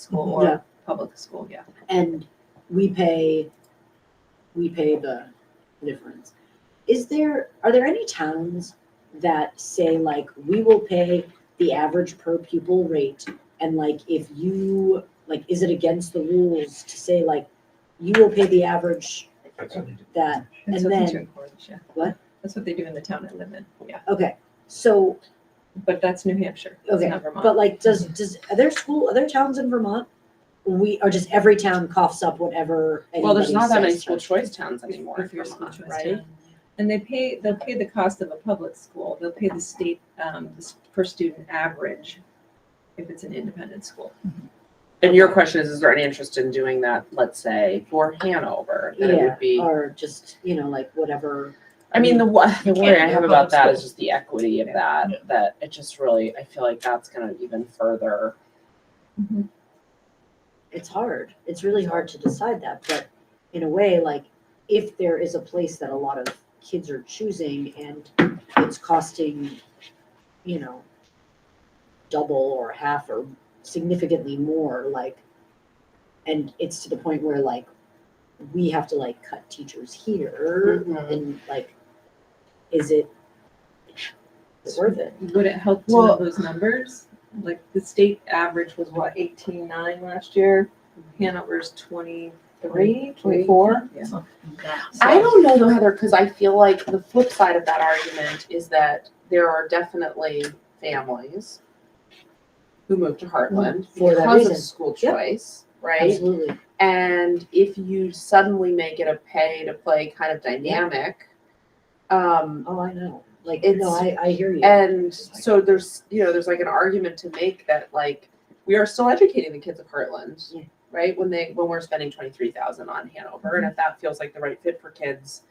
school Yeah. or public school, yeah. and we pay, we pay the difference. Is there, are there any towns that say like, we will pay the average per pupil rate? And like, if you, like, is it against the rules to say like, you will pay the average that, That's what And they then- do in Corliss, yeah. What? That's what they do in the town I live in, yeah. okay, so, But that's New Hampshire, it's Okay, not Vermont. but like, does, does, are there school, are there towns in Vermont? We, or just every town coughs up whatever Well, there's anybody not that many says. school choice towns If- anymore if in you're school Vermont, choice right? town. And they pay, they'll pay the cost of a public school, they'll pay the state, um, the s- per student average if it's an independent school. And your question is, is there any interest in doing that, let's say, for Hanover? That it Yeah, would be, or just, you know, like whatever. I mean, the one, the can't worry I do have a about public that school. is just the equity of that, that it just really, I feel like that's gonna even further. it's hard. It's really hard to decide that, but in a way, like if there is a place that a lot of kids are choosing and it's costing, you know, double or half or significantly more, like, and it's to the point where like we have to like cut teachers here Mm-hmm. and like, is it is it worth it? Would it help to Well- know those numbers? Like the state average was what, eighteen nine last year? Hanover's twenty-three, twenty-four? Yeah. I don't know though, Heather, because I feel like the flip side of that argument is that there are definitely families who move to Heartland For that because reason. of school Yep. choice, right? Absolutely. And if you suddenly make it a pay to play kind of dynamic, um, Oh, I know. Like, It's- no, I, I hear you. and so there's, you know, there's like an argument to make that like we are still educating the kids of Heartland, Yeah. right? When they when we're spending twenty three thousand on Hanover, Mm-hmm. and if that feels like the right fit for kids,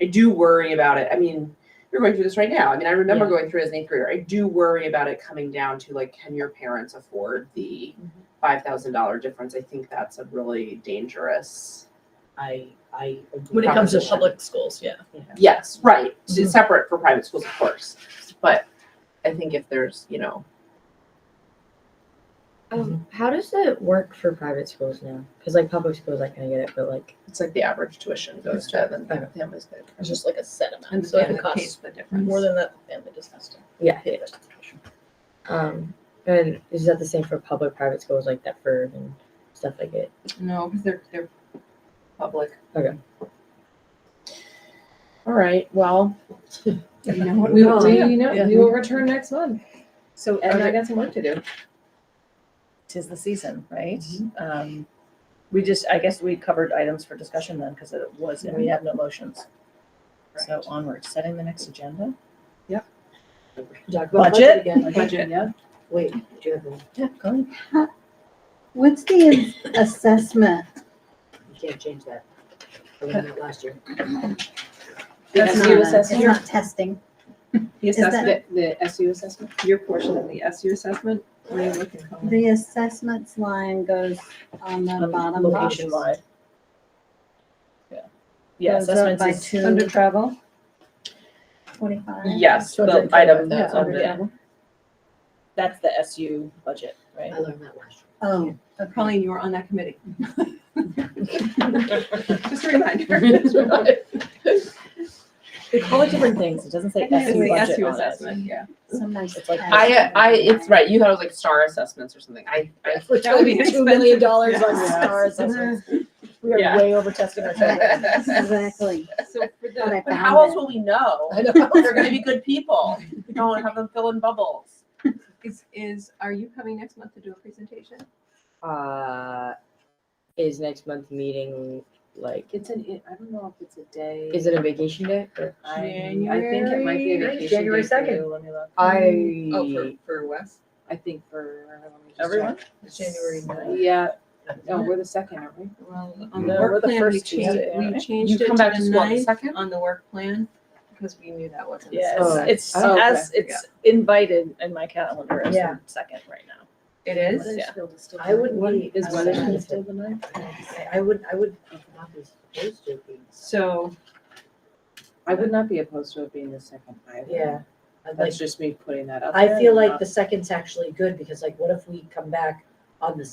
I do worry about it. I mean, you're going through this right now. I mean, I remember Yeah. going through it as an eighth grader. I do worry about it coming down to like, can your parents afford the Mm-hmm. five thousand dollar difference? I think that's a really dangerous. I, I. agree. When it comes to Proposition. public schools, yeah. Yes, right. S- Mhm. Separate for private schools, of course. But I think if there's, you know, Um, how does it work for private schools now? Because like public schools, I kind of get it, but like it's like the average tuition goes to then the family's good. It's just like a set And amount, the so if family it pays costs the difference. more than that, the family just has to yeah, pay it. um, and is that the same for public private schools like that for and stuff like it? No, because they're, they're public. All right, well, You know what We we will, want Yeah. you know, we will return next month. so And okay. I got some work to do. Tis the season, right? Um, we just, I guess we covered items for discussion then, because it was, and we have no motions. So onward, setting the next agenda. Talk about budget Budget? again. Budget. Yeah. Wait, do you have one? Yeah, go ahead. What's the assessment? You can't change that. I learned that last year. That's It's you not a- assessing. It's not testing. The that- assessment, the SU assessment, your portion of the SU assessment, where you looking for? The assessments line goes on Um, the bottom. Location box. wide. Yeah. Yeah, Goes up assessments by is two. under travel. Forty-five. yes, Two hundred the and item twenty-five that's thousand, under yeah. That's the SU budget, right? I learned that last year. Oh, okay. Colleen, you were on that committee. Just a reminder. It's the They call it different things. It doesn't say It's SU the budget SU on it. assessment, yeah. Sometimes. It's like- I, I, it's right. You thought it was like star assessments or something. I, I That would be Two million dollars expensive. on stars. We Yeah. are way over testing our children. Exactly. So for the, But I But how else found will we know? I know. They're gonna be good people. We Don't have them fill in bubbles. Is, is, are you coming next month to do a presentation? Uh, is next month meeting like It's an, I don't know if it's a day. is it a vacation day? Or- January second. I Oh, for Wes? I think for. Everyone? January ninth. Yeah, no, we're the second, aren't we? Well, on the No, work we're the plan, we first changed- Tuesday, We we right? Mm-hmm. You changed it to come back to the school on the ninth second? on the work plan because we knew that wasn't. Oh, Yes, it's okay. as, it's invited in my calendar as Yeah. the second right now. It is? Yeah. I would be. Is I would- Weatherspoon still the ninth? I- I would, I would not be supposed to be. So, I would not be opposed to it being the second. Yeah. I'd like, That's just me putting that up. I there. feel I'm like not- the second's actually good because like, what if we come back on the